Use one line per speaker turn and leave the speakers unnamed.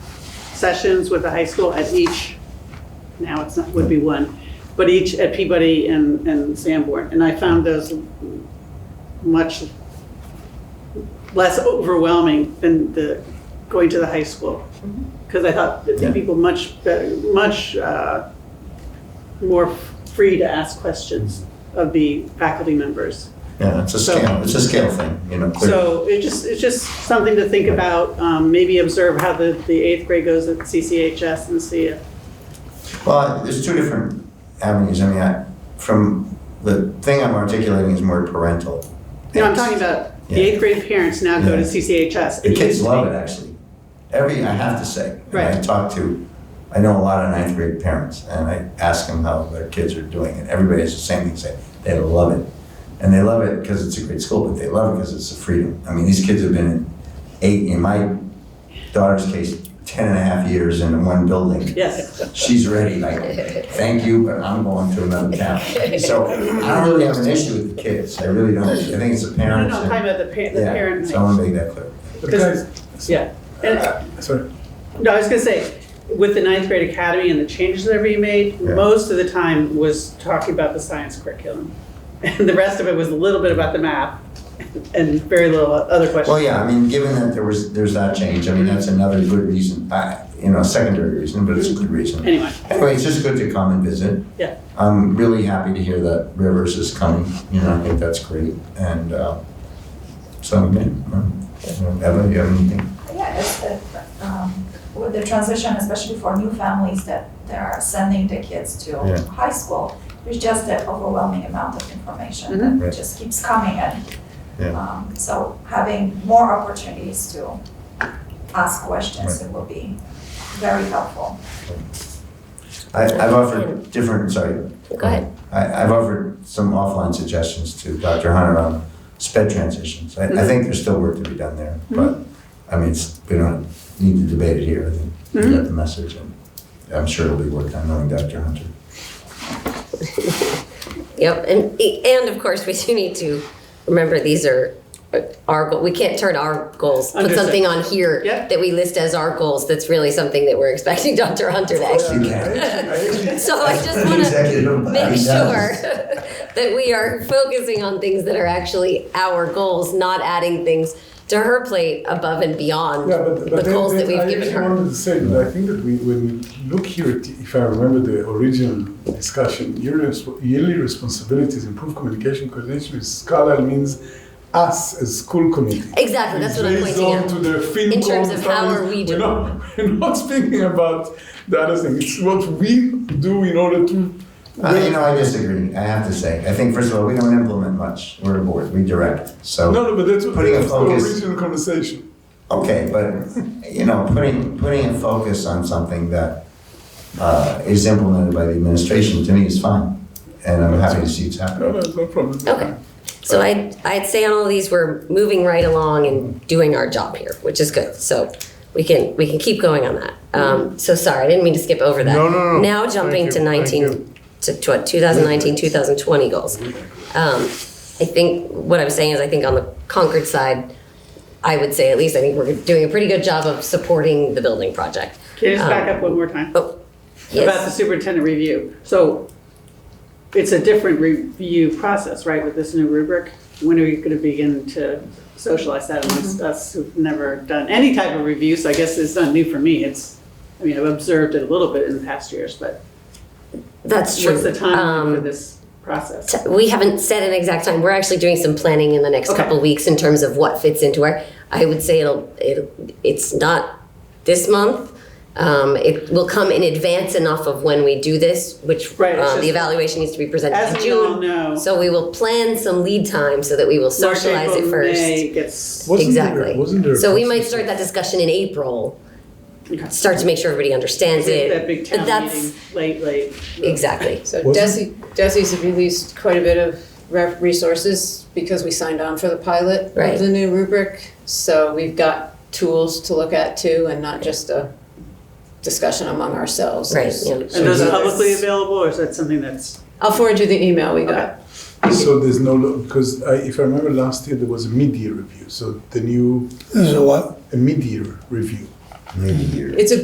sessions with the high school at each, now it's not, would be one, but each at Peabody and, and Sanborn. And I found those much less overwhelming than the, going to the high school. Because I thought that the
Yeah.
people much, better- much uh, more free to ask questions of the faculty members.
Yeah, it's a scale, it's a scale thing, you know, clear.
So it just, it's just something to think about, um, maybe observe how the, the eighth grade goes at CCHS and see if,
Well, there's two different avenues. I mean, I, from, the thing I'm articulating is more parental.
no, I'm talking about the
Yeah.
eighth grade parents now go to
Yeah.
CCHS.
The kids love it, actually. Every, I have to say, and I
Right.
talk to, I know a lot of ninth grade parents, and I ask them how their kids are doing, and everybody has the same thing to say, they love it. And they love it because it's a great school, but they love it because it's a freedom. I mean, these kids have been in eight, in my daughter's case, ten and a half years in one building
Yes,
she's ready, like, thank you, but I'm going to another town. So I don't really have an issue with the kids, I really don't, I think it's the
no, no,
parents.
no, I'm
and-
talking about the parent, the
Yeah,
parent
So I want
night.
to make that clear.
Because-
Guys, uh,
Yeah, and,
sorry.
no, I was gonna say, with the ninth grade academy and the changes that were being made,
Yeah.
most of the time was talking about the science curriculum. And the rest of it was a little bit about the math and very little other questions.
Well, yeah, I mean, given that there was, there's that change, I mean, that's another good reason, uh, you know, secondary reason, but it's a good reason.
Anyway,
Anyway, it's just good to come and visit.
Yeah.
I'm really happy to hear that Rivers is coming, you know, I think that's great, and, uh, so, yeah, um, Eva, you have anything?
Yeah, it's the, um, with the transition, especially for new families that they are sending the kids to
Yeah.
high school, there's just an overwhelming amount of information
Mhm.
Right.
that just keeps coming in.
Yeah.
Um, so having more opportunities to ask questions, it will be very helpful.
I, I've offered different, sorry.
Go ahead.
I, I've offered some offline suggestions to Dr. Hunter on sped transitions. I,
Mm-hmm.
I think there's still work to be done there, but, I mean, it's, we don't need to debate it here. I think you got the
Mm-hmm.
message, and I'm sure it'll be worth on knowing Dr. Hunter.
Yep, and, and of course, we do need to remember these are our, goal. we can't turn our goals, put
Understood.
something on here
Yep.
that we list as our goals, that's really something that we're expecting Dr. Hunter to actually.
You can.
So I just want to
Executive
make
body
sure
does.
that we are focusing on things that are actually our goals, not adding things to her plate above and beyond
Yeah, but,
the
but then,
goals that
then
we've
I
given
just
her.
wanted to say that I think that we, when we look here, at, if I remember the original discussion, yearly, resp- yearly responsibilities, improve communication, coordination with Carlisle means us as school committee.
Exactly, that's what I'm
Based
pointing
on
out.
to the FinCom
In terms of how
times,
are we
we're
doing?
not- We're not speaking about the other thing. It's what we do in order to.
I, you know, I disagree, I have to say. I think, first of all, we don't implement much. We're a board, we direct, so.
no, no, but that's what
Putting a
that's the
focus-
original conversation.
Okay, but, you know, putting, putting a focus on something that uh, is implemented by the administration, to me, is fine. And I'm happy to see it's
No,
happening.
no, no problem.
Okay. Um, So I, I'd say on all these, we're moving right along and doing our job here, which is good. So we can, we can keep going on that. Um, so sorry, I didn't mean to skip over that.
No, no, no.
Now jumping
Thank
to
you, thank
nineteen,
you.
to tw- two thousand nineteen, two thousand twenty goals. Um, I think, what I'm saying is I think on the Concord side, I would say at least, I think we're doing a pretty good job of supporting the building project.
can you just back
Um,
up one more time?
Oh,
about the
yes,
superintendent review. So it's a different review process, right, with this new rubric? When are you going to begin to socialize that
Mm-hmm.
amongst us who've never done any type of review? So I guess it's not new for me. It's, I mean, I've observed it a little bit in the past years, but
that's true.
what's the timeline
Um,
for this process?
t- we haven't set an exact time. We're actually doing some planning in the next
Okay.
couple weeks in terms of what fits into our. I would say it'll it it's not this month. Um, it will come in advance enough of when we do this, which
Right, it's
uh,
just-
the evaluation needs to be presented
As
in
we all
June.
know,
So we will plan some lead time so that we will
March,
socialize
April,
it first.
May gets,
Wasn't
exactly.
There, wasn't there a
so we might
process?
start that discussion in April.
Okay.
Start to make sure everybody understands it.
that big
but
town
that's
meeting, late, late.
exactly.
So
Wasn't-
Desi, Desi's released quite a bit of re- resources because we signed on for the pilot
Right.
of the new rubric. So we've got tools to look at too and not just a discussion among ourselves.
Right,
There's-
yeah.
And those
there's
are publicly
others.
available, or is that something that's,
I'll forward you the email we got.
So there's no, lo- because I, if I remember last year, there was a mid-year review, so the new. There's a what? A mid-year review.
Maybe years.
It's a